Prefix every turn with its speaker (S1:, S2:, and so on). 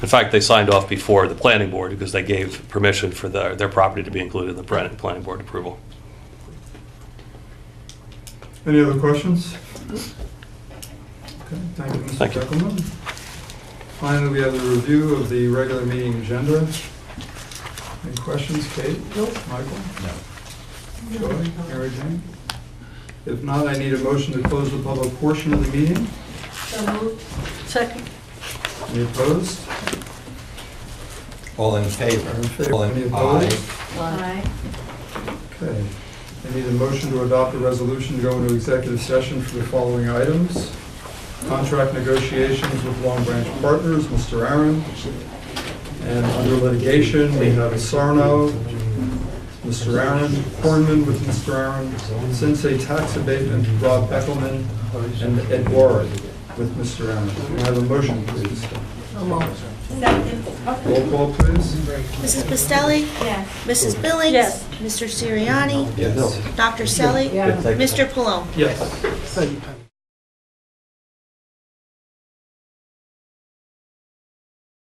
S1: In fact, they signed off before the planning board because they gave permission for their, their property to be included in the plan- planning board approval.
S2: Any other questions? Okay, thank you, Mr.
S1: Thank you.
S2: Beckelman. Finally, we have the review of the regular meeting agenda. Any questions, Kate? Nope. Michael?
S3: No.
S2: Joy? Mary Jane? If not, I need a motion to close the public portion of the meeting.
S4: So moved. Second.
S2: Any opposed?
S3: All in
S2: All in
S3: favor?
S2: favor?
S3: All
S2: Any
S3: in
S2: opposed?
S3: aye.
S4: Aye.
S2: Okay. I need a motion to adopt a resolution to go into executive session for the following items. Contract negotiations with Long Branch Partners, Mr. Aaron. And under litigation, we have Sarno, Mr. Aaron, Hornman with Mr. Aaron, Sensei Tax Abatement, Rob Beckelman, and Ed Warren with Mr. Aaron. Can I have a motion, please?
S4: So moved. Second.
S2: Roll call, please.
S5: Mrs. Pastelli?
S4: Yes.
S5: Mrs. Billings?
S4: Yes.
S5: Mr. Siriani?
S2: Yes.
S5: Dr. Selly? Mr. Palone?
S2: Yes.